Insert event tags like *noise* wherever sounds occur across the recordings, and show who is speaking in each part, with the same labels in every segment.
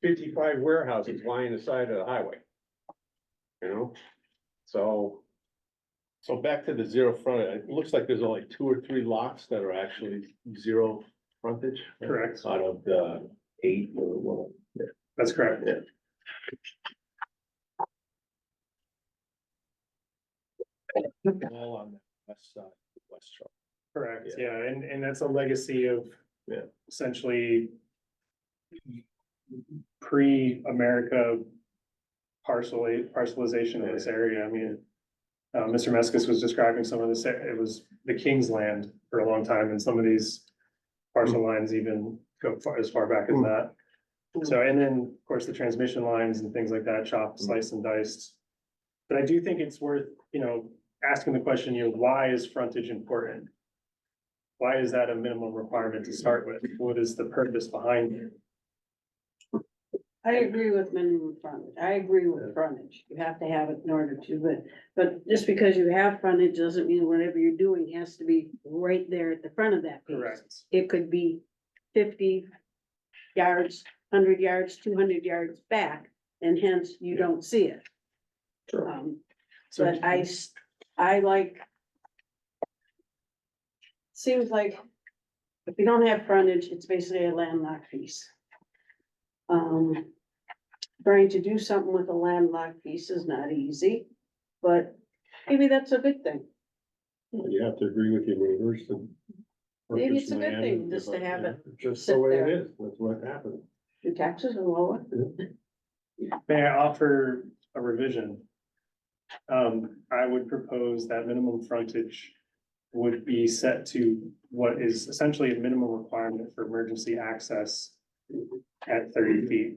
Speaker 1: fifty-five warehouses lying the side of the highway. You know, so,
Speaker 2: So back to the zero front, it looks like there's only two or three lots that are actually zero frontage.
Speaker 3: Correct.
Speaker 2: Out of the eight or what?
Speaker 3: That's correct.
Speaker 2: All on the west side, west shore.
Speaker 3: Correct, yeah, and, and that's a legacy of.
Speaker 2: Yeah.
Speaker 3: Essentially. Pre-America. Parcel, parcelization of this area, I mean. Uh, Mr. Meskis was describing some of this, it was the king's land for a long time, and some of these. Parcel lines even go far, as far back as
Speaker 2: Mm.
Speaker 3: that. So, and then, of course, the transmission lines and things like that, chopped,
Speaker 2: Mm.
Speaker 3: sliced and diced. But I do think it's worth, you know, asking the question, you know, why is frontage important? Why is that a minimum requirement to start with? What is the purpose behind it?
Speaker 4: I agree with minimum frontage. I agree with frontage. You have to have it in order to, but, but just because you have frontage doesn't mean whatever you're doing has to be right there at the front of that piece. It could be fifty yards, hundred yards, two hundred yards back, and hence you don't see it.
Speaker 1: Sure.
Speaker 4: Um,
Speaker 3: So,
Speaker 4: But I, s- I like. Seems like if you don't have frontage, it's basically a landlocked piece. Um, trying to do something with a landlocked piece is not easy, but maybe that's a good thing.
Speaker 2: You have to agree with your neighbors and.
Speaker 4: Maybe it's a good thing just to have it
Speaker 2: Just
Speaker 4: sit
Speaker 2: the way
Speaker 4: there.
Speaker 2: it is, that's what happened.
Speaker 4: Your taxes are lower.
Speaker 3: may I offer a revision? Um, I would propose that minimum frontage would be set to what is essentially a minimum requirement for emergency access at thirty feet.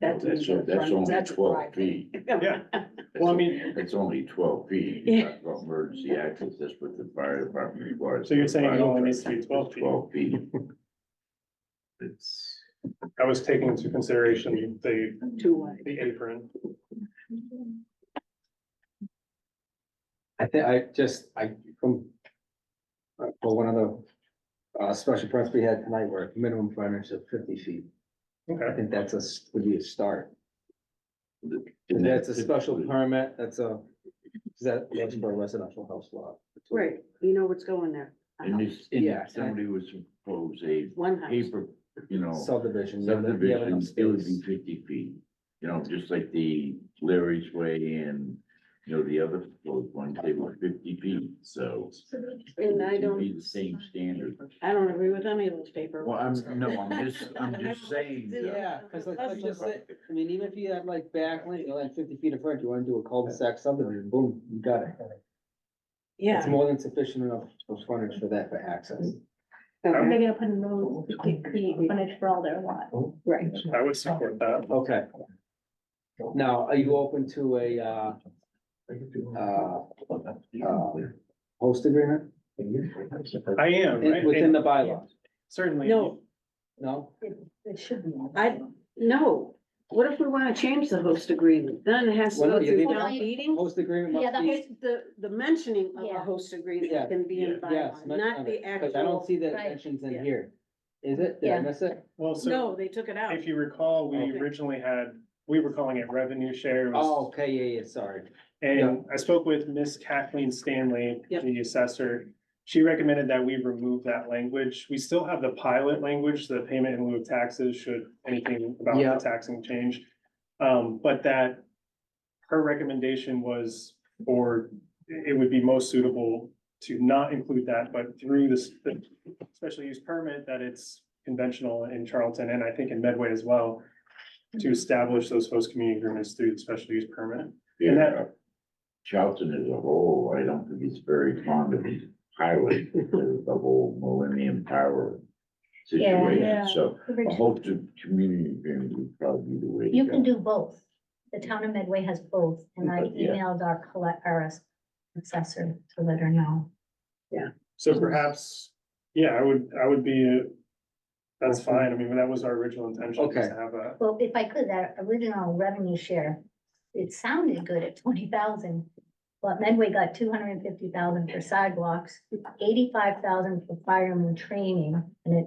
Speaker 4: That's
Speaker 5: That's, o- that's only
Speaker 4: that's
Speaker 5: twelve
Speaker 4: right.
Speaker 5: feet.
Speaker 3: Yeah, well, I mean,
Speaker 5: It's only twelve feet.
Speaker 4: Yeah.
Speaker 5: You talk about emergency access, that's what the fire department requires.
Speaker 3: So you're saying it
Speaker 5: Fire
Speaker 3: only needs to be
Speaker 5: department,
Speaker 3: 12 feet?
Speaker 5: Twelve feet.
Speaker 2: It's.
Speaker 3: I was taking into consideration the,
Speaker 4: *laughs* Too wide.
Speaker 3: the apron.
Speaker 6: I think I just, I, from. uh, For one of the, uh, special permits we had tonight were minimum frontage of fifty feet. I
Speaker 3: Okay,
Speaker 6: think that's a, s- would be a start.
Speaker 5: And
Speaker 6: That's a
Speaker 5: that's
Speaker 6: special
Speaker 5: typically-
Speaker 6: permit, that's a, is that, that's for a residential house lot.
Speaker 4: Right, you know what's going there. A
Speaker 5: And
Speaker 4: house,
Speaker 5: if, and
Speaker 6: Yeah.
Speaker 5: if somebody was to propose a
Speaker 4: One house.
Speaker 5: paper, you know,
Speaker 6: Subdivision. you have enough- you have
Speaker 5: subdivision,
Speaker 6: enough
Speaker 5: it would be
Speaker 6: space.
Speaker 5: fifty feet. You know, just like the Larry's Way and, you know, the other proposed ones, they were fifty feet, so.
Speaker 4: And I
Speaker 5: it'd
Speaker 4: don't,
Speaker 5: Be the same standard.
Speaker 4: I don't agree with any of those paper.
Speaker 5: Well, I'm, no, I'm just,
Speaker 4: *laughs*
Speaker 5: I'm just saying. that-
Speaker 6: Yeah, cause like, let's just say,
Speaker 5: Right.
Speaker 6: I mean, even if you had like back lane, you know, like fifty feet of front, you wanna do a cul-de-sac subdivision, boom, you got it. It's
Speaker 4: Yeah.
Speaker 6: more than sufficient enough for frontage for that for access.
Speaker 3: I'm-
Speaker 7: They're gonna put in roads to create frontage for all their lots.
Speaker 4: Right.
Speaker 3: I would support that.
Speaker 6: Okay. Now, are you open to a, uh, uh, uh, host agreement?
Speaker 3: I am, right?
Speaker 6: In- Within
Speaker 3: And
Speaker 6: the bylaw,
Speaker 3: Certainly.
Speaker 4: No,
Speaker 6: no?
Speaker 7: It should be.
Speaker 4: I, no. What if we want to change the host agreement? Then it has to
Speaker 6: Well,
Speaker 4: go
Speaker 6: no, you
Speaker 4: through
Speaker 6: leave
Speaker 7: it
Speaker 4: town
Speaker 7: out.
Speaker 4: meeting.
Speaker 6: Host agreement
Speaker 7: Yeah,
Speaker 6: must
Speaker 7: the
Speaker 6: be,
Speaker 7: host-
Speaker 4: The, the mentioning of a
Speaker 7: Yeah.
Speaker 4: host agreement
Speaker 6: Yeah,
Speaker 4: can be in
Speaker 5: yeah.
Speaker 6: yes,
Speaker 4: bylaw,
Speaker 6: mention
Speaker 4: not
Speaker 6: of
Speaker 4: the
Speaker 6: it, cause I don't
Speaker 4: actual.
Speaker 6: see that it
Speaker 7: Right.
Speaker 6: mentions
Speaker 4: Yeah.
Speaker 6: in here. Is it? Did I
Speaker 7: Yeah.
Speaker 6: miss it?
Speaker 3: Well, so
Speaker 4: No, they took it out.
Speaker 3: if you recall, we
Speaker 6: Okay.
Speaker 3: originally had, we were calling it revenue share. It was-
Speaker 6: Oh, okay, yeah, yeah, sorry.
Speaker 3: And I spoke with Miss Kathleen Stanley,
Speaker 4: Yep.
Speaker 3: the assessor. She recommended that we remove that language. We still have the pilot language, the payment in lieu of taxes, should anything about
Speaker 6: Yeah.
Speaker 3: the taxing change. Um, but that her recommendation was, or it would be most suitable to not include that, but through this the special use permit that it's conventional in Charlton and I think in Medway as well, to establish those host community agreements through the special use permit. And that-
Speaker 5: Yeah. uh, Charlton as a whole, I don't think it's very fond of his highway, the whole Millennium Tower
Speaker 7: Yeah.
Speaker 5: situation, so I
Speaker 7: You
Speaker 5: hope the community agreement would probably be the way. to go.
Speaker 7: can do both. The town of Medway has both, and I
Speaker 5: Yeah.
Speaker 7: emailed our collect, our assessor to let her know.
Speaker 3: So perhaps, yeah, I would, I would be, uh, that's fine, I mean, that was our original intention, was
Speaker 6: Okay.
Speaker 3: to have a,
Speaker 7: Well, if I could, that original revenue share, it sounded good at twenty thousand. But Medway got two hundred and fifty thousand for sidewalks, eighty-five thousand for fireman training, and it